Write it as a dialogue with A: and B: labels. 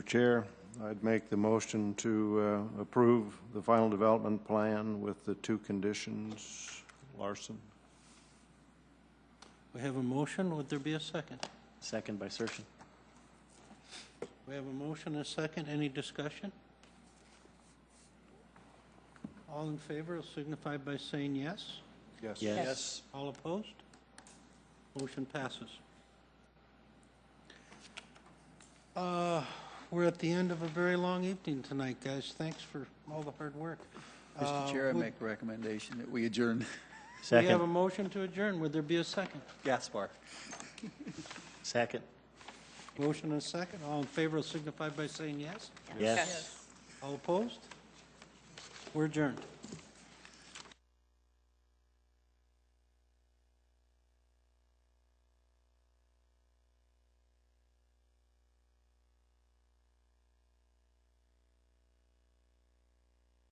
A: Chair, I'd make the motion to uh, approve the final development plan with the two conditions. Larson?
B: We have a motion, would there be a second?
C: Second by Sershin.
B: We have a motion, and a second, any discussion? All in favor will signify by saying yes.
C: Yes.
B: All opposed? Motion passes. Uh, We're at the end of a very long evening tonight, guys. Thanks for all the hard work. Uh,
D: Mr. Chair, I
B: would-
D: make a recommendation that we adjourn.
B: We have a
C: Second,
B: motion to adjourn. Would there be a second?
D: Gaspar.
C: second,
B: Motion and a second. All in favor will signify by saying yes.
C: yes.
B: All opposed? We're adjourned.